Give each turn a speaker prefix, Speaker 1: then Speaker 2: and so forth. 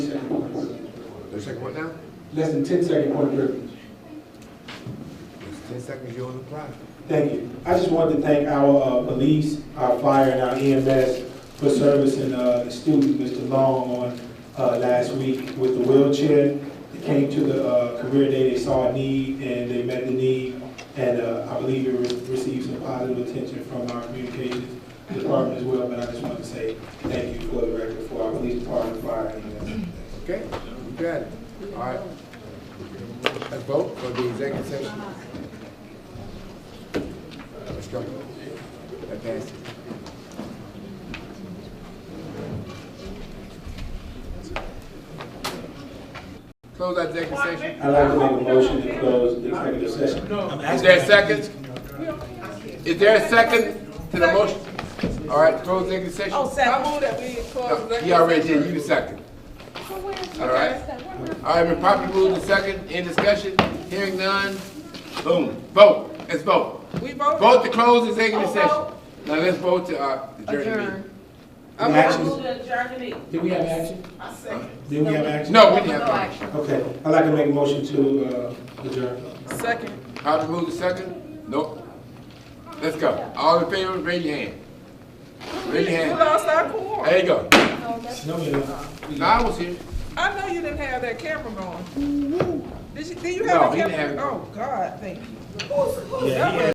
Speaker 1: One second, what now?
Speaker 2: Less than 10 second point of privilege.
Speaker 1: It's ten seconds, you're on the clock.
Speaker 2: Thank you. I just wanted to thank our uh, police, our fire, and our EMS for servicing uh, the student, Mr. Long, on uh, last week with the wheelchair. They came to the uh, career day, they saw a need, and they met the need, and uh, I believe it re- received some positive attention from our communications department as well, but I just wanted to say thank you for the record for our police department, fire, E and EMS.
Speaker 1: Okay, you got it. All right. Let's vote for the executive session. Let's go. That passes. Close that executive session.
Speaker 2: I'd like to make a motion to close the executive session.
Speaker 1: Is there a second? Is there a second to the motion? All right, close the executive
Speaker 3: Oh,
Speaker 1: session.
Speaker 3: second. I move that we close
Speaker 1: No,
Speaker 3: the.
Speaker 1: He already did, you the second. All right. All right, been properly moved and second, in discussion, hearing none, boom, vote, let's vote.
Speaker 3: We voted.
Speaker 1: Vote to close this executive
Speaker 3: Oh,
Speaker 1: session.
Speaker 3: vote.
Speaker 1: Now let's vote to, uh, adjourn the meeting.
Speaker 3: I
Speaker 2: Any
Speaker 3: move- I
Speaker 2: actions?
Speaker 3: move to adjourn the meeting.
Speaker 2: Did we have action? Did we have action?
Speaker 1: No, we didn't have time.
Speaker 2: Okay, I'd like to make a motion to uh, adjourn.
Speaker 3: Second.
Speaker 1: Properly moved and second, nope. Let's go, all in favor, raise your hand. Raise your
Speaker 3: You
Speaker 1: hand,
Speaker 3: lost our cord.
Speaker 1: there you go.
Speaker 2: No, we don't.
Speaker 1: No, I was here,
Speaker 3: I know you didn't have that camera going. Did you, did you
Speaker 1: Mm-hmm. No,
Speaker 3: have a
Speaker 1: he didn't have
Speaker 3: camera?
Speaker 1: it.
Speaker 3: Oh, God, thank you.
Speaker 2: Yeah, he
Speaker 3: That was